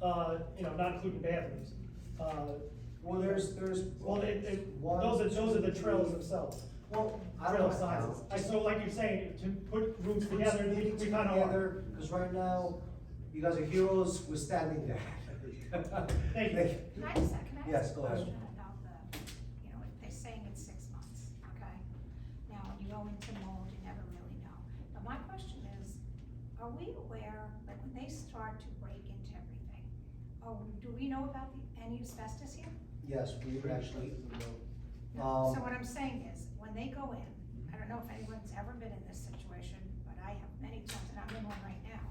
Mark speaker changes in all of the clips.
Speaker 1: uh, you know, not including bathrooms. Uh,
Speaker 2: Well, there's, there's.
Speaker 1: Well, it, it,
Speaker 2: one,
Speaker 1: those are, those are the trails
Speaker 2: two,
Speaker 1: themselves,
Speaker 2: Well, I
Speaker 1: trail
Speaker 2: don't
Speaker 1: sizes.
Speaker 2: know.
Speaker 1: I, so like you're saying, to put rooms
Speaker 2: We're
Speaker 1: together, we
Speaker 2: meeting
Speaker 1: kind of are.
Speaker 2: together, Cause right now, you guys are heroes, we're standing there.
Speaker 1: Thank you.
Speaker 3: Can I just, can I
Speaker 2: Yes,
Speaker 3: ask a
Speaker 2: go ahead.
Speaker 3: question about the, you know, if they're saying it's six months, okay? Now, when you go into mold, you never really know. But my question is, are we aware, like, when they start to break into everything, oh, do we know about the, any asbestos here?
Speaker 2: Yes, we would actually,
Speaker 3: No. So
Speaker 2: Um,
Speaker 3: what I'm saying is, when they go in, I don't know if anyone's ever been in this situation, but I have many times, and I'm in one right now.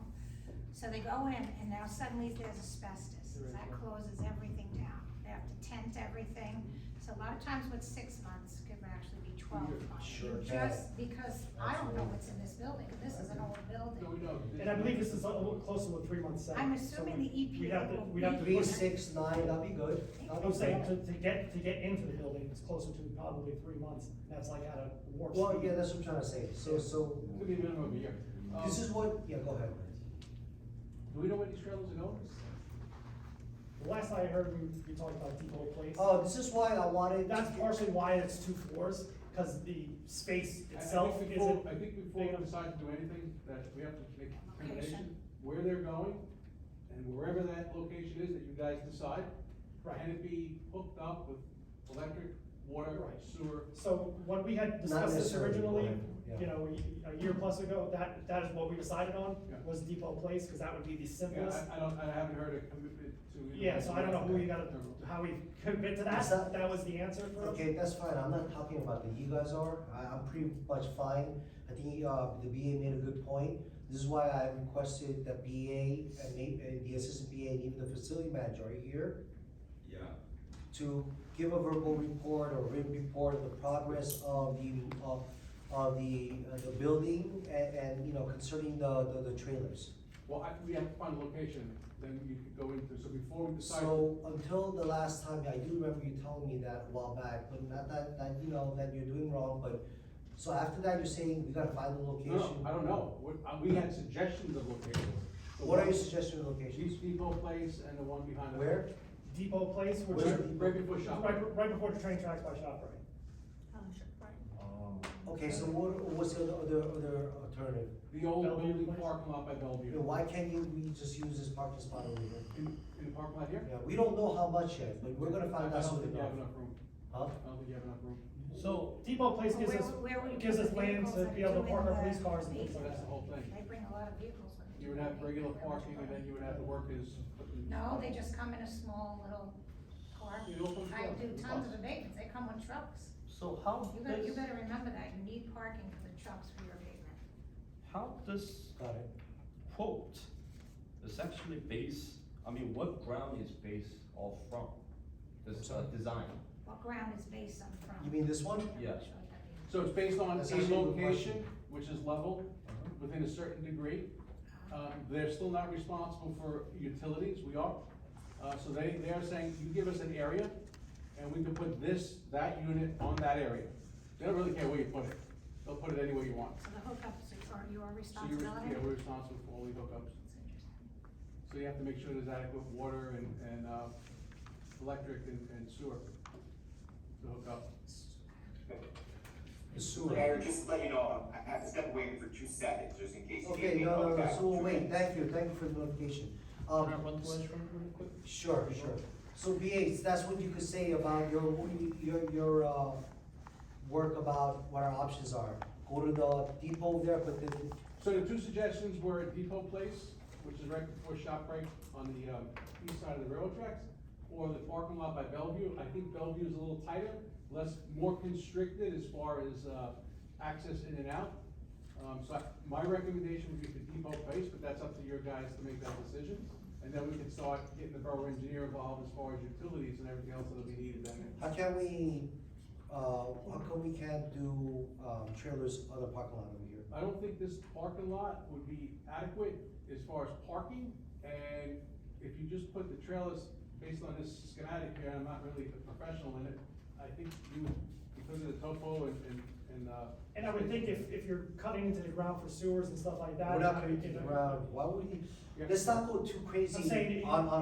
Speaker 3: So they go in, and now suddenly there's asbestos,
Speaker 2: There is,
Speaker 3: that
Speaker 2: yeah.
Speaker 3: closes everything down, they have to tent everything. So a lot of times with six months could actually be twelve months.
Speaker 2: Sure.
Speaker 3: Just because I don't know what's in this building, this is an old building.
Speaker 1: And I believe this is a little closer with three months. set.
Speaker 3: I'm
Speaker 1: So
Speaker 3: assuming
Speaker 1: we-
Speaker 3: the EPA
Speaker 1: We'd have to,
Speaker 3: will
Speaker 1: we'd have to.
Speaker 3: be-
Speaker 2: three,
Speaker 1: put-
Speaker 2: six, nine, that'd be good. That'd be
Speaker 1: I'm saying, to,
Speaker 2: good.
Speaker 1: to get, to get into the building, it's closer to probably three months, that's like at a warp speed.
Speaker 2: Well, yeah, that's what I'm trying to say, so, so,
Speaker 4: Could be a minimum of a year. Um,
Speaker 2: this is what, yeah, go ahead.
Speaker 1: Um,
Speaker 4: Do we know where these trailers are going?
Speaker 1: The Last I heard, we, we talked about depot place.
Speaker 2: Oh, this is why I wanted. to
Speaker 1: That's
Speaker 2: get-
Speaker 1: partially why it's two floors, because the space
Speaker 4: I- I think
Speaker 1: itself
Speaker 4: before-
Speaker 1: isn't.
Speaker 4: I think before
Speaker 1: big
Speaker 4: we
Speaker 1: enough.
Speaker 4: decide to do anything, that we have to make a
Speaker 3: Location.
Speaker 4: determination where they're going, and wherever that location is that you guys decide.
Speaker 1: Right.
Speaker 4: Can it be hooked up with electric, water,
Speaker 1: Right.
Speaker 4: sewer?
Speaker 1: So when we had discussed this
Speaker 2: necessarily,
Speaker 1: originally,
Speaker 2: right,
Speaker 1: you
Speaker 2: yeah.
Speaker 1: know, a year plus ago, that, that is what we decided on,
Speaker 4: Yeah.
Speaker 1: was depot place, because that would be the
Speaker 4: Yeah,
Speaker 1: simplest.
Speaker 4: I, I don't, I haven't heard a commitment to.
Speaker 1: Yeah, so I don't know who you gotta,
Speaker 4: Or-
Speaker 1: how we commit to that,
Speaker 2: Is that-
Speaker 1: that was the answer for us.
Speaker 2: Okay, that's fine, I'm not talking about that, you guys are, I, I'm pretty much fine, I think, uh, the BA made a good point. This is why I requested that BA, and maybe, and the assistant BA, and even the facility manager are here,
Speaker 5: Yeah,
Speaker 2: to give a verbal report or written report of the progress of the, of, of the, uh, the building and, and, you know, concerning the, the, the trailers.
Speaker 4: Well, I, we have to find a location, then you could go into, so before we decide.
Speaker 2: So until the last time, I do remember you telling me that a while back, but not that, that, you know, that you're doing wrong, but, so after that, you're saying we gotta find the
Speaker 4: No,
Speaker 2: location?
Speaker 4: No, I don't know, what, uh, we had suggestions of locations. The
Speaker 2: What are
Speaker 4: one-
Speaker 2: your suggested locations?
Speaker 4: Chief's Depot Place and the one behind. the-
Speaker 2: Where?
Speaker 1: Depot place, which
Speaker 2: Where?
Speaker 1: is
Speaker 4: Right right before Shop.
Speaker 1: right, right before the train tracks by ShopRite.
Speaker 3: Um,
Speaker 2: Um, Okay, so what, what's the other, other alternative?
Speaker 4: The old
Speaker 1: Bellevue
Speaker 4: building
Speaker 1: Place?
Speaker 4: parking lot by
Speaker 2: You
Speaker 4: Bellevue.
Speaker 2: know, why can't you, we just use this parking spot over here?
Speaker 4: In, in the parking lot here?
Speaker 2: Yeah, we don't know how much yet, but we're gonna find
Speaker 4: I-
Speaker 2: out
Speaker 4: I don't
Speaker 2: soon
Speaker 4: think you
Speaker 2: enough.
Speaker 4: have enough room.
Speaker 2: Huh?
Speaker 4: I don't think you have enough room.
Speaker 1: So depot place gives
Speaker 3: Where-
Speaker 1: us,
Speaker 3: where would you
Speaker 1: gives
Speaker 3: put
Speaker 1: us
Speaker 3: the
Speaker 1: land
Speaker 3: vehicles
Speaker 1: to
Speaker 3: that
Speaker 1: be
Speaker 3: are
Speaker 1: able to
Speaker 3: doing
Speaker 1: park our
Speaker 3: the-
Speaker 1: police cars and things
Speaker 4: So
Speaker 1: like
Speaker 4: that's the
Speaker 1: that.
Speaker 4: whole thing.
Speaker 3: They bring a lot of vehicles. with them.
Speaker 4: You would have regular parking and then you would have the workers.
Speaker 3: No, they just come in a small little car.
Speaker 4: They don't come
Speaker 3: I
Speaker 4: trucks.
Speaker 3: do tons of abatements, they come with trucks.
Speaker 6: So
Speaker 4: Oh,
Speaker 6: how
Speaker 3: You better, you
Speaker 6: does,
Speaker 3: better remember that, you need parking for the trucks for your abatement.
Speaker 6: how does
Speaker 2: Got it.
Speaker 6: quote is actually based, I mean, what ground is based off from? This uh,
Speaker 2: Sorry?
Speaker 6: design,
Speaker 3: What ground is based on from?
Speaker 2: You mean this one?
Speaker 3: I'm
Speaker 6: Yeah.
Speaker 3: not sure what that means.
Speaker 4: So it's based on
Speaker 2: That's
Speaker 4: a
Speaker 2: actually a good
Speaker 4: location,
Speaker 2: question.
Speaker 4: which is level, within a certain degree. Uh,
Speaker 3: Um,
Speaker 4: they're still not responsible for utilities, we are. Uh, so they, they are saying, you give us an area, and we can put this, that unit on that area. They don't really care where you put it, they'll put it anywhere you want.
Speaker 3: So the hookups are your
Speaker 4: So you're,
Speaker 3: responsibility?
Speaker 4: yeah, we're responsible for all the hookups.
Speaker 3: That's interesting.
Speaker 4: So you have to make sure there's adequate water and, and, uh, electric and, and sewer to hook up.
Speaker 2: The
Speaker 7: Mayor,
Speaker 2: sewer.
Speaker 7: just to let you know, I have to step away for two seconds, just in case you need
Speaker 2: Okay,
Speaker 7: me.
Speaker 2: no, no, no,
Speaker 7: Okay.
Speaker 2: so wait, thank you, thank you for the notification. Um,
Speaker 6: Can I run through this real quick?
Speaker 2: Sure, sure. So BA, that's what you could say about your, your, your, uh, work about what our options are. Go to the depot there, but then,
Speaker 4: So the two suggestions were Depot Place, which is right before ShopRite on the, um, east side of the railroad tracks, or the parking lot by Bellevue. I think Bellevue is a little tighter, less, more constricted as far as, uh, access in and out. Um, so I- my recommendation would be the Depot Place, but that's up to your guys to make that decision. And then we can start getting the borough engineer involved as far as utilities and everything else that'll be needed then.
Speaker 2: how can we, uh, how come we can't do, um, trailers on the parking lot over here?
Speaker 4: I don't think this parking lot would be adequate as far as parking, and if you just put the trailers based on this schematic here, I'm not really a professional in it, I think you, because of the topo and, and, and, uh.
Speaker 1: And I would think if, if you're cutting into the ground for sewers and stuff like that.
Speaker 2: We're not
Speaker 1: I
Speaker 2: gonna
Speaker 1: mean,
Speaker 2: get
Speaker 1: if-
Speaker 2: around, why would we,
Speaker 4: Yeah.
Speaker 2: let's not go too
Speaker 1: I'm saying
Speaker 2: crazy
Speaker 1: it-
Speaker 2: on, on